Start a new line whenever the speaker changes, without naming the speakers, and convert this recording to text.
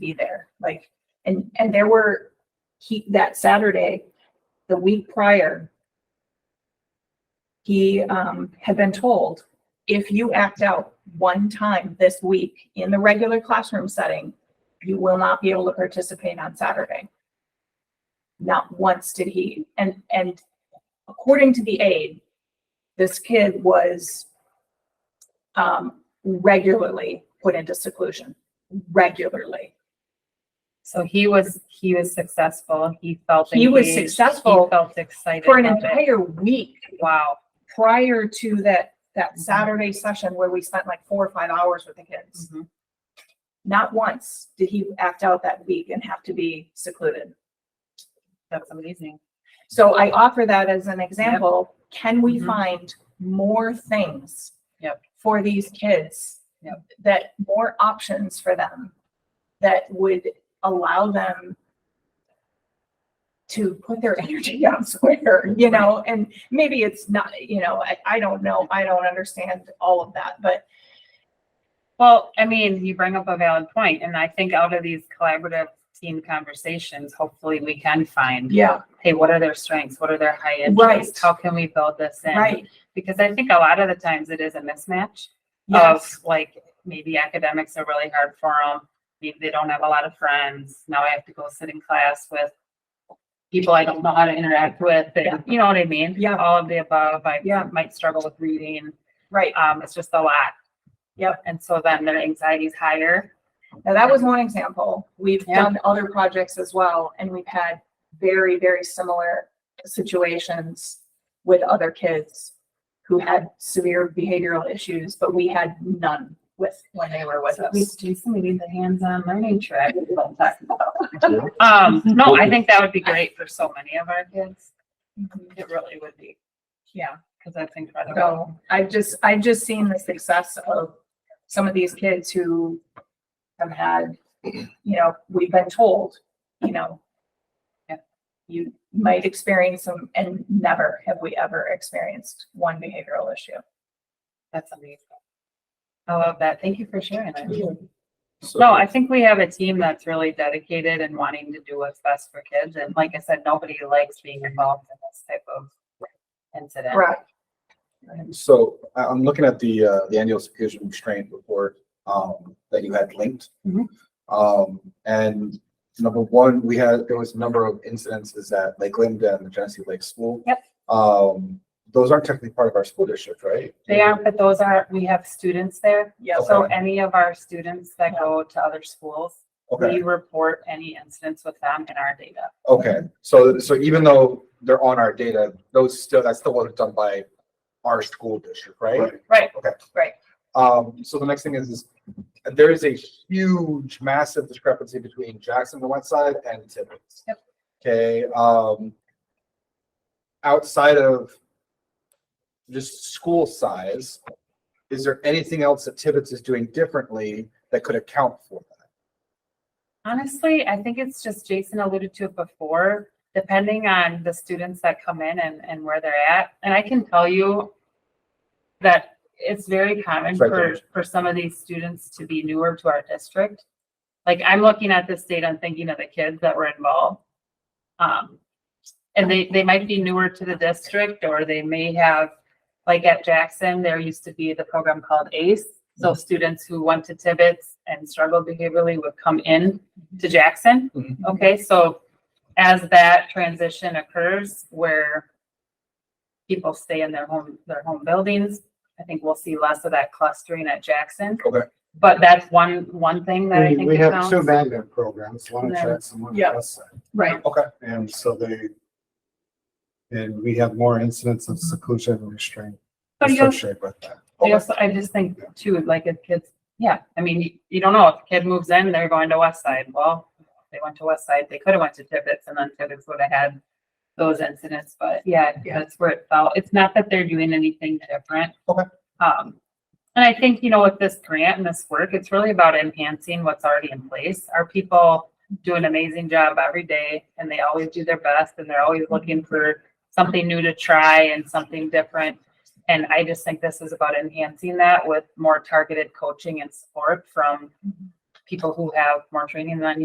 be there, like, and, and there were, he, that Saturday, the week prior, he, um, had been told, if you act out one time this week in the regular classroom setting, you will not be able to participate on Saturday. Not once did he, and, and according to the aide, this kid was um, regularly put into seclusion, regularly.
So he was, he was successful. He felt.
He was
engaged.
successful
He Felt excited.
For an
about it.
entire week
Wow.
prior to that, that
Mhm.
Saturday session where we spent like four or five hours with the kids. Not once did he act out that week and have to be secluded.
That's amazing.
So I offer that as an example. Can we
Mhm.
find more things?
Yep.
For these kids?
Yep.
That more options for them that would allow them to put their energy elsewhere, you know, and maybe it's not, you know, I, I don't know. I don't understand all of that, but
Well, I mean, you bring up a valid point, and I think out of these collaborative team conversations, hopefully we can find,
yeah,
hey, what are their strengths? What are their high
Right.
interests? How can we build this in?
right.
Because I think a lot of the times it is a mismatch of
Yes.
like, maybe academics are really hard for them. Maybe they don't have a lot of friends. Now I have to go sit in class with people I don't know how to interact with. and- You know what I mean?
Yeah.
All of the above. I
Yeah.
might struggle with reading.
Right.
Um, it's just a lot.
Yep.
And so then their anxiety is higher.
Now, that was one example. We've
Yeah.
done other projects as well, and we've had very, very similar situations with other kids who had severe behavioral issues, but we had none with, when they were with
So we,
us.
Jason, we need the hands-on learning track. is what I'm talking about. Um, no, I think that would be great for so many of our kids. It really would be,
Yeah,
because that's incredible.
so I've just, I've just seen the success of some of these kids who have had, you know, we've been told, you know,
Yeah.
you might experience them, and never have we ever experienced one behavioral issue.
That's amazing. I love that. Thank you for sharing that.
So-
No, I think we have a team that's really dedicated and wanting to do what's best for kids. And like I said, nobody likes being involved in this type of incident.
Right.
So I, I'm looking at the, uh, the annual security restraint report, um, that you had linked.
Mhm.
Um, and number one, we had, there was a number of incidences at Lake Linda and the Genesee Lake School.
Yep.
Um, those aren't technically part of our school district, right?
They are, but those are, we have students there.
Yeah,
So
so,
Okay.
any of our students that go to other schools, we
Okay,
report any incidents with them in our data.
okay. So, so even though they're on our data, those still, that's still wasn't done by our school district, right?
Right.
Okay.
Right.
Um, so the next thing is, is there is a huge, massive discrepancy between Jackson, the west side, and Tibbetts.
Yep.
Okay, um, outside of just school size, is there anything else that Tibbetts is doing differently that could account for that?
Honestly, I think it's just Jason alluded to it before, depending on the students that come in and, and where they're at. And I can tell you that it's very common
It's right there.
for, for some of these students to be newer to our district. Like I'm looking at this data and thinking of the kids that were involved. Um, and they, they might be newer to the district or they may have, like at Jackson, there used to be the program called ACE.
Mm-hmm.
So students who went to Tibbetts and struggled behaviorally would come in to Jackson.
Mm-hmm.
Mhm.
Okay, so as that transition occurs where people stay in their home, their home buildings, I think we'll see less of that clustering at Jackson.
Okay.
But that's one, one thing that I
We,
think.
we have two
counts.
magnet programs, one
Yeah.
at Jackson, one
Yeah.
at West Side,
right,
Okay,
and so they. And we have more incidents of seclusion and restraint
But you also-
associated with that.
I also, I just think too, like if kids, yeah, I mean, you- you don't know, if a kid moves in, they're going to West Side. Well, they went to West Side, they could have went to Tibbetts and then Tibbetts would have had those incidents, but yeah,
Yeah.
that's where it fell. It's not that they're doing anything different.
Okay.
Um, and I think, you know, with this grant and this work, it's really about enhancing what's already in place. Our people do an amazing job every day and they always do their best and they're always looking for something new to try and something different. And I just think this is about enhancing that with more targeted coaching and support from people who have more training than